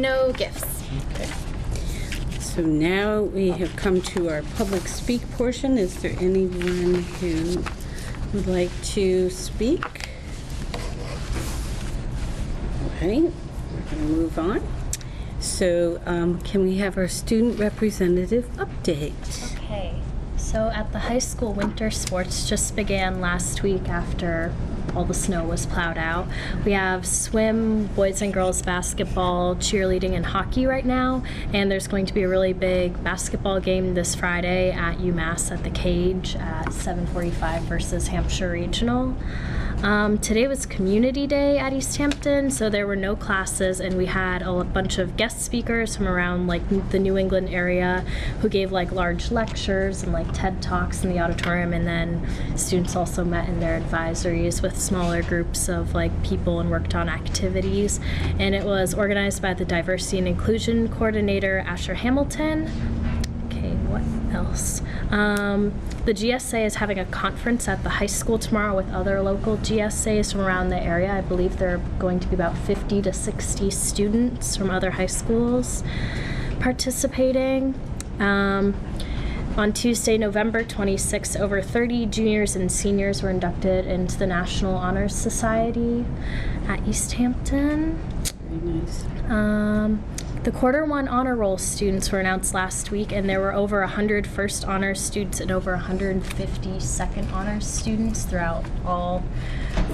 No gifts. Okay. So now we have come to our public speak portion. Is there anyone who would like to speak? All right, we're going to move on. So um, can we have our student representative update? Okay. So at the high school, winter sports just began last week after all the snow was plowed out. We have swim, boys and girls basketball, cheerleading, and hockey right now. And there's going to be a really big basketball game this Friday at UMass at the Cage at 7:45 versus Hampshire Regional. Um, today was Community Day at East Hampton, so there were no classes, and we had a bunch of guest speakers from around like the New England area who gave like large lectures and like TED Talks in the auditorium, and then students also met in their advisories with smaller groups of like people and worked on activities. And it was organized by the Diversity and Inclusion Coordinator Asher Hamilton. Okay, what else? Um, the GSA is having a conference at the high school tomorrow with other local GSAs from around the area. I believe there are going to be about 50 to 60 students from other high schools participating. Um, on Tuesday, November 26, over 30 juniors and seniors were inducted into the National Honor Society at East Hampton. Very nice. Um, the quarter one honor roll students were announced last week, and there were over 100 first honors students and over 150 second honors students throughout all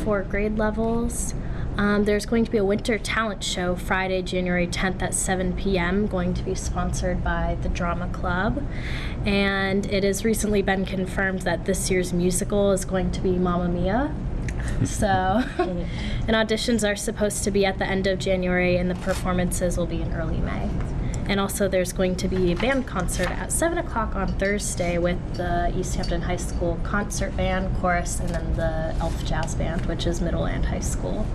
four grade levels. Um, there's going to be a winter talent show Friday, January 10th at 7 p.m., going to be sponsored by the Drama Club. And it has recently been confirmed that this year's musical is going to be Mamma Mia. So, and auditions are supposed to be at the end of January, and the performances will be in early May. And also, there's going to be a band concert at 7 o'clock on Thursday with the East Hampton High School Concert Band, Chorus, and then the Elf Jazz Band, which is middle and high school.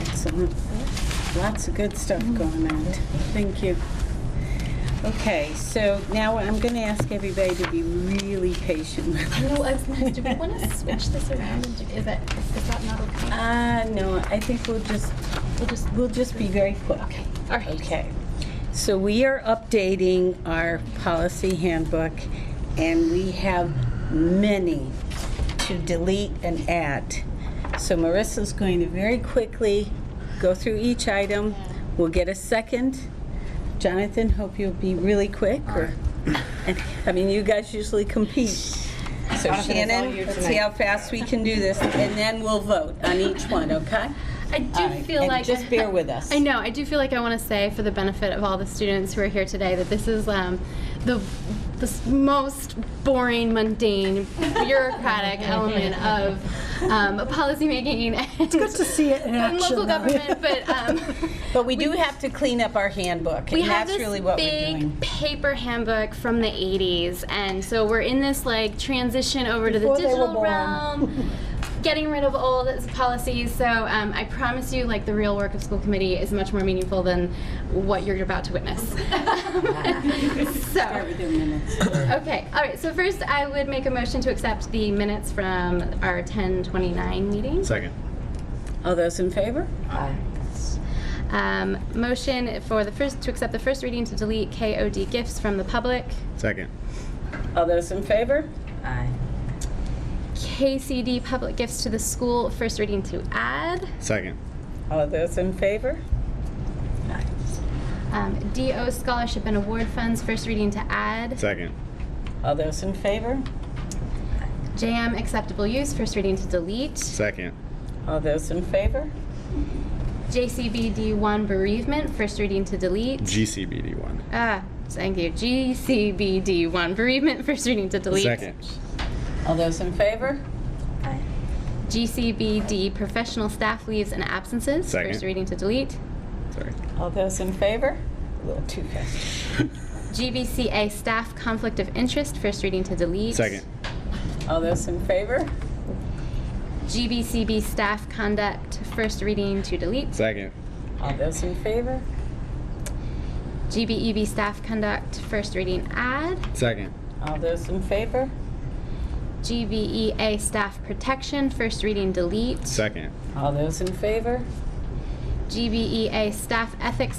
Excellent. Lots of good stuff going on. Thank you. Okay, so now I'm going to ask everybody to be really patient with us. No, I was gonna, do we want to switch this around? And do, is that is that not okay? Uh, no, I think we'll just, we'll just. we'll just be very quick. All right. Okay. So we are updating our policy handbook, and we have many to delete and add. So Marissa's going to very quickly go through each item. We'll get a second. Jonathan, hope you'll be really quick, or, I mean, you guys usually compete. So Shannon, let's see how fast we can do this, and then we'll vote on each one, okay? I do All right, feel and like. just bear with us. I know. I do feel like I want to say, for the benefit of all the students who are here today, that this is um, the the s- most boring, mundane, bureaucratic element of um, policymaking and, it's good to see it in and local government. But um, But we do have to clean up our handbook, we and have that's this really what we're big doing. paper handbook from the 80s and so we're in this like transition over Before to they were the digital born. realm getting rid of old policies so um, i promise you like the real work of school committee is much more meaningful than what you're about to witness so okay all right so first i would make a motion to accept the minutes from our 1029 meeting Second. All those in favor? um, motion for the first to accept the first reading to delete kod gifts from the public Second. All those in favor? KCD public gifts to the school, first reading to add. Second. All those in favor? Um, DO scholarship and award funds, first reading to add. Second. All those in favor? JM acceptable use, first reading to delete. Second. All those in favor? JCBD1 bereavement, first reading to delete. GCBD one. Ah, thank you. GCBD1 bereavement, first reading to delete. Second. All those in favor? GCBD professional staff leaves and absences, Second. first reading to delete. Sorry. All those in favor? A little too fast. GBCA staff conflict of interest, first reading to delete. Second. All those in favor? GBCB staff conduct, first reading to delete. Second. All those in favor? GBEB E staff conduct first reading add, Second. All those in favor? GBEA E staff protection first reading delete, Second. All those in favor? GBEA E staff ethics